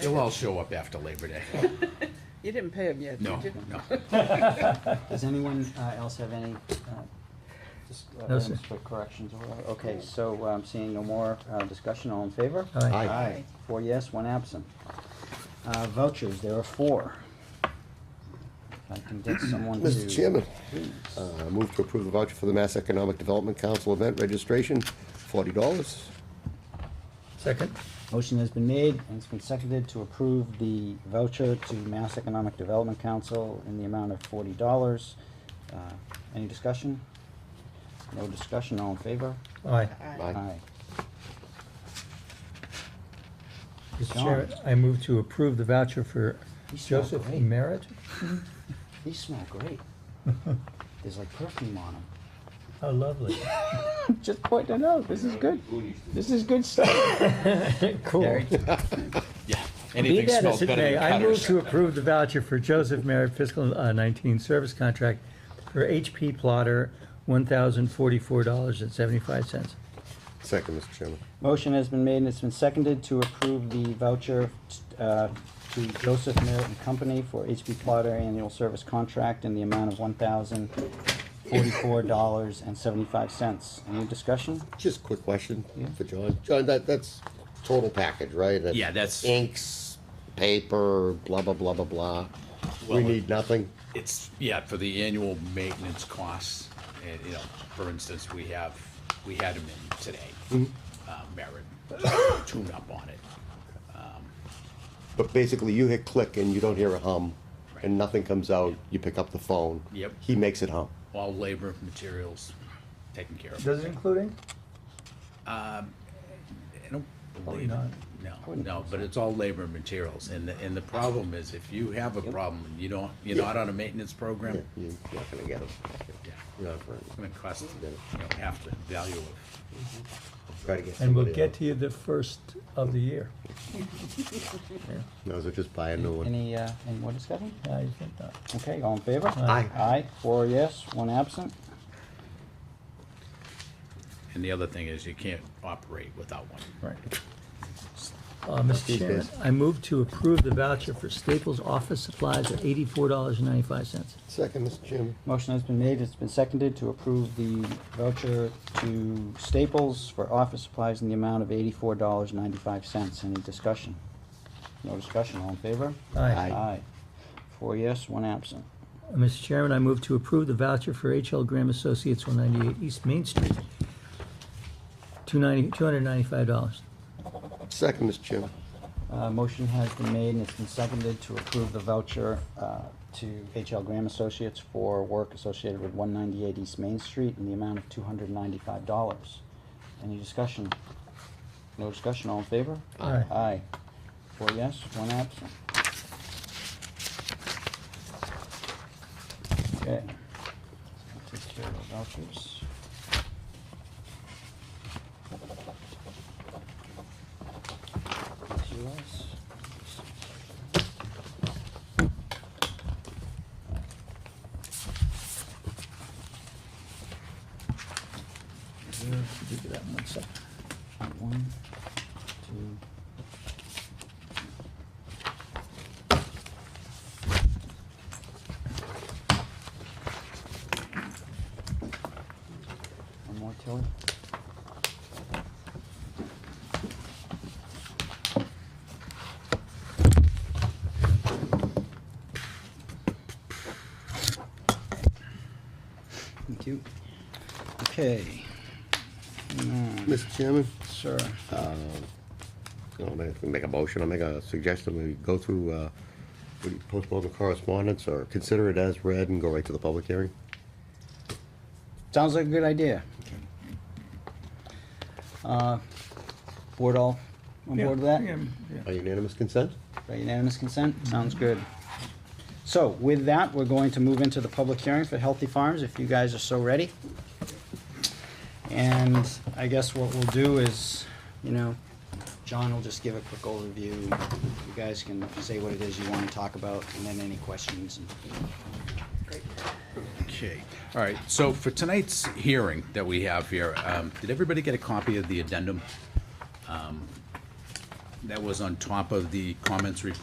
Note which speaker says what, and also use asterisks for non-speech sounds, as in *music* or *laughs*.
Speaker 1: They'll all show up after Labor
Speaker 2: *laughs*
Speaker 1: Day.
Speaker 3: You didn't pay him yet,
Speaker 1: No,
Speaker 3: did you?
Speaker 1: no.
Speaker 4: Does anyone uh, else have any, uh, just, uh,
Speaker 2: No, sir.
Speaker 4: items for corrections or whatever? Okay, so um, seeing no more uh, discussion, all in favor?
Speaker 2: Aye.
Speaker 1: Aye.
Speaker 4: Aye. Four yes, one absent. Uh, Vouchers, there are four. If I can get someone to.
Speaker 5: Mr. Chairman,
Speaker 4: Please.
Speaker 5: uh, move to approve the voucher for the Mass Economic Development Council event registration, forty dollars.
Speaker 2: Second?
Speaker 4: Motion has been made and it's been seconded to approve the voucher to Mass Economic Development Council in the amount of forty dollars. Uh, Any discussion? No discussion, all in favor?
Speaker 2: Aye.
Speaker 3: Aye.
Speaker 2: Mr. Chair, I move to approve the voucher for
Speaker 4: He's so
Speaker 2: Joseph
Speaker 4: great.
Speaker 2: Merritt.
Speaker 4: These smell *laughs* great. There's like perfume on them.
Speaker 2: How lovely.
Speaker 4: Just pointing out, this is good. This is good *laughs* stuff.
Speaker 2: Cool.
Speaker 1: Yeah,
Speaker 2: Be
Speaker 1: anything
Speaker 2: that
Speaker 1: smells
Speaker 2: as it
Speaker 1: better
Speaker 2: may,
Speaker 1: than
Speaker 2: I move
Speaker 1: cutters.
Speaker 2: to approve the voucher for Joseph Merritt fiscal uh, 19 service contract for HP plotter, $1,044.75.
Speaker 5: Second, Mr. Chairman.
Speaker 4: Motion has been made and it's been seconded to approve the voucher uh, to Joseph Merritt and Company for HP Plotter Annual Service Contract in the amount of one thousand forty-four dollars and seventy-five cents. Any discussion?
Speaker 5: Just a quick question for John. John, that, that's total package, right?
Speaker 1: Yeah, that's-
Speaker 5: Inks, paper, blah, blah, blah, blah, blah. We
Speaker 1: Well,
Speaker 5: need nothing.
Speaker 1: It's, yeah, for the annual maintenance costs, and, you know, for instance, we have, we had him in
Speaker 2: Mm.
Speaker 1: today. Uh, Merritt, tune up on it.
Speaker 5: But basically, you hit click and you don't hear a hum,
Speaker 1: Right.
Speaker 5: and nothing comes out. You pick up the phone.
Speaker 1: Yep.
Speaker 5: He makes it hum.
Speaker 1: All labor, materials taken care of.
Speaker 2: Does it include?
Speaker 1: I don't
Speaker 2: Probably
Speaker 1: believe,
Speaker 2: not.
Speaker 1: no, no, but it's all labor and materials, and the, and the problem is, if you have a problem, and you don't, you're not on a maintenance program,
Speaker 5: You're not gonna get it.
Speaker 1: yeah,
Speaker 5: You're not gonna-
Speaker 1: it's gonna cost, you know, half the value of
Speaker 5: Try to get
Speaker 2: And we'll
Speaker 5: somebody
Speaker 2: get
Speaker 5: else.
Speaker 2: to you the first of the year.
Speaker 5: No, so just buy a new one.
Speaker 4: Any, uh, any more discussion?
Speaker 2: I think not.
Speaker 4: Okay, all in favor?
Speaker 2: Aye.
Speaker 4: Aye, four yes, one absent.
Speaker 1: And the other thing is you can't operate without one.
Speaker 2: Right. Uh, Mr.
Speaker 5: these
Speaker 2: Chairman,
Speaker 5: days.
Speaker 2: I move to approve the voucher for Staples office supplies at eighty-four dollars and ninety-five cents.
Speaker 5: Second, Mr. Chairman.
Speaker 4: Motion has been made, it's been seconded to approve the voucher to Staples for office supplies in the amount of eighty-four dollars ninety-five cents. Any discussion? No discussion, all in favor?
Speaker 2: Aye. Aye.
Speaker 4: Aye. Four yes, one absent.
Speaker 2: Mr. Chairman, I move to approve the voucher for H.L. Graham Associates, one ninety-eight East Main Street, two ninety, two hundred ninety-five dollars.
Speaker 5: Second, Mr. Chairman.
Speaker 4: Uh, motion has been made and it's been seconded to approve the voucher, uh, to H.L. Graham Associates for work associated with one ninety-eight East Main Street in the amount of two hundred ninety-five dollars. Any discussion? No discussion, all in favor?
Speaker 2: Aye.
Speaker 4: Aye. Four yes, one absent. Okay. Take care of the vouchers. That's yours. One, two, One more, Tilly. Thank you. Okay.
Speaker 5: Mr. Chairman.
Speaker 4: Sir.
Speaker 5: I'll make, make a motion, I'll make a suggestion, we go through, uh, we postpone the correspondence or consider it as read and go right to the public hearing?
Speaker 4: Sounds like a good idea. Uh, Board all on board with that?
Speaker 5: By unanimous consent?
Speaker 4: By unanimous consent? Sounds good. So with that, we're going to move into the public hearing for Healthy Farms, if you guys are so ready. And I guess what we'll do is, you know, John will just give a quick overview. You guys can say what it is you want to talk about, and then any questions.
Speaker 1: Okay, all right, so for tonight's hearing that we have here, um, did everybody get a copy of the addendum? Um, that was on top of the comments report